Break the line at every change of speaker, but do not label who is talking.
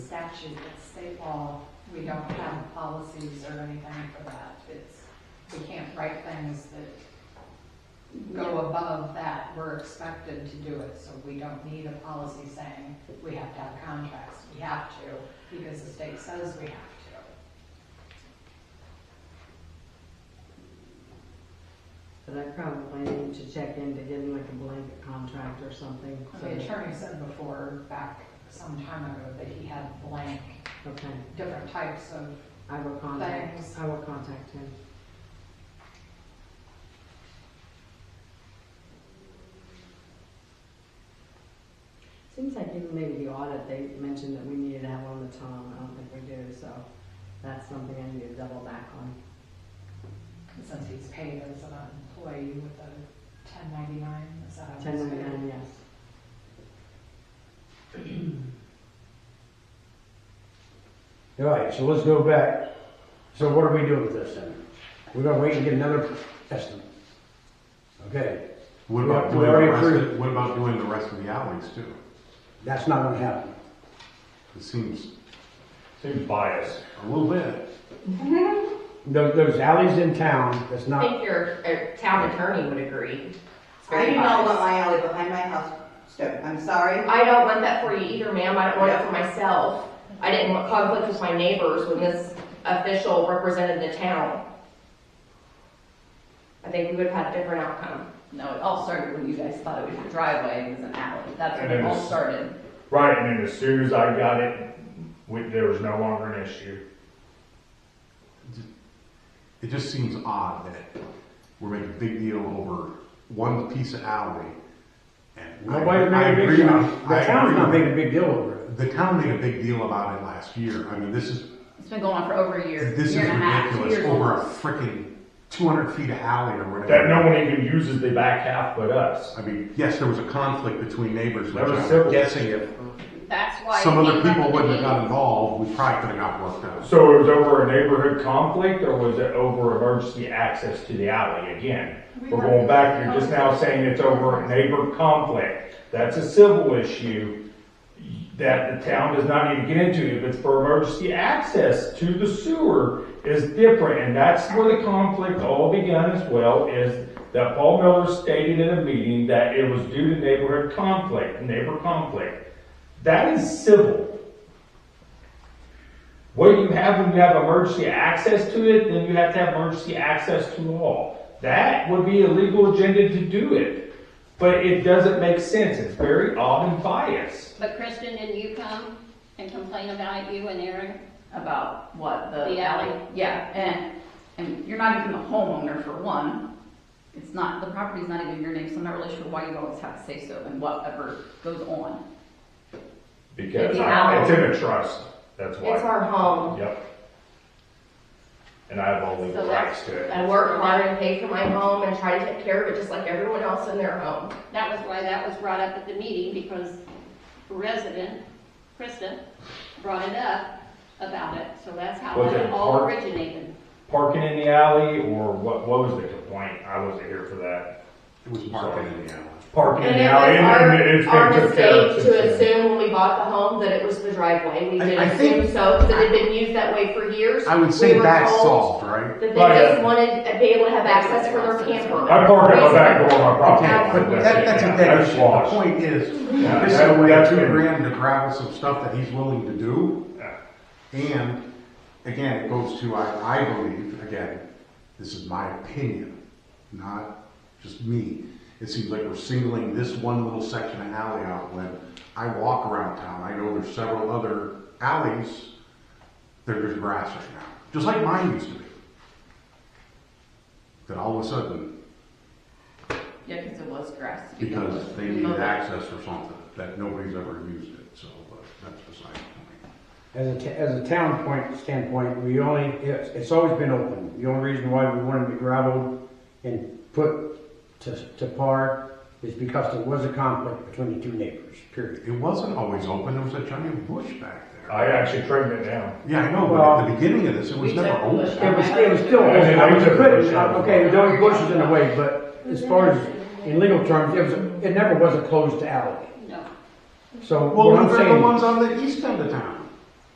statute, it's state law. We don't have policies or anything for that. It's, we can't write things that go above that. We're expected to do it, so we don't need a policy saying we have to have contracts. We have to, because the state says we have to.
But I probably need to check into getting like a blanket contract or something. so-
The attorney said before, back some time ago, that he had blank,
Okay,
different types of
I will contact,
Thanks.
I will contact him. Seems like even maybe the audit, they mentioned that we needed to have one of the Tom, I don't think we do, so that's something I need to double back on.
Since he's paid as an employee with a ten ninety-nine, is that how it's
Ten
paid?
ninety-nine, yes.
All right, so let's go back. So what are we doing with this then? We're gonna wait and get another estimate. Okay,
What
Yeah,
about
we
doing the
already
rest
approved.
of, what about doing the rest of the alleys too?
that's not gonna happen.
It seems
Seems biased.
a little bit.
Those, those alleys in town, that's
I
not,
think your uh, town attorney would agree. It's
I
very
do not want
biased.
my alley behind my house stone. I'm sorry.
I don't want that for you either, ma'am. I don't want it for myself. I didn't want conflict with my neighbors when this official represented the town. I think we would have had a different outcome.
No, it all started when you guys thought it was your driveway, it was an alley. That's when
And
it
it
all
was-
started.
Right, and then as soon as I got it, we, there was no longer an issue.
It just seems odd that we're making a big deal over one piece of alley. And I-
nobody
I
made a big
agree
deal.
with- I
The town's
agree
not
with-
making a big deal over it.
The town made a big deal about it last year. I mean, this is
It's been going on for over a year,
this is
year and a half, two
ridiculous.
years.
Over a freaking 200 feet of alley or whatever.
That no one even uses the back half but us.
I mean, yes, there was a conflict between neighbors.
That
which
was
I'm
civil.
Guessing if
That's why.
some
it
other
came up
people
in the
wouldn't have
meeting.
got involved, we probably could have got worked out.
So it was over a neighborhood conflict or was it over emergency access to the alley again?
We
We're
were-
going back, you're just now saying it's over a neighbor conflict. That's a civil issue that the town does not need to get into. If it's for emergency access to the sewer is different, and that's where the conflict all began as well, is that Paul Miller stated in a meeting that it was due to neighborhood conflict, neighbor conflict. That is civil. What you have when you have emergency access to it, then you have to have emergency access to all. That would be a legal agenda to do it, but it doesn't make sense. It's very odd and biased.
But Kristen, didn't you come and complain about you and Aaron?
About what, the
The
alley?
alley.
Yeah, and, and you're not even the homeowner for one. It's not, the property's not even your name, so I'm not really sure why you always have to say so and whatever goes on.
Because
The
I- it's
alley.
in a trust, that's
It's
why.
our home.
Yep. And I have all legal
So that's-
rights to it.
I work hard and pay for my home and try to take care of it just like everyone else in their home.
That was why that was brought up at the meeting, because resident, Krista, brought it up about it, so that's how
Was it
it all
part-
originated.
Parking in the alley or what, what was the complaint? I wasn't here for that.
It was market in the alley.
Parking in
And
the
it
alley and and
was
it's
our, our
been took care of
mistake
since
to
then.
assume when we bought the home that it was the driveway. We
I-
did
I think-
assume so, because it had been used that way for years.
I would say
We were
that's
told
solved, right?
That they
Right.
just wanted to be able to have access for their camper.
I park at my back door on my property.
Yeah, but that, that's a
Yeah,
dead
that's
issue.
lost.
The point is,
Yeah,
this is
that-
a way
that's
two
been-
grand to gravel some stuff that he's willing to do.
Yeah.
And again, it goes to, I, I believe, again, this is my opinion, not just me. It seems like we're singling this one little section of alley out when I walk around town. I know there's several other alleys that there's grass right now, just like mine used to be. That all of a sudden,
Yeah, because it was grass to begin with.
because they need access or something, that nobody's ever used it, so, but that's beside the point.
As a, t- as a town point standpoint, we only, it's, it's always been open. The only reason why we wanted to gravel and put to, to par is because there was a conflict between the two neighbors, period.
It wasn't always open, there was a giant bush back there.
I actually trimmed it down.
Yeah, I know, but at the beginning of this, it was
We
never
took the bush
open.
It was, it was still,
And then
I was
they took
putting-
the bush
okay,
out.
there was bushes in the way, but as far as, in legal terms, it was, it never was a closed alley.
No.
So
Well,
what I'm
they're the
saying,
ones on the east end of town.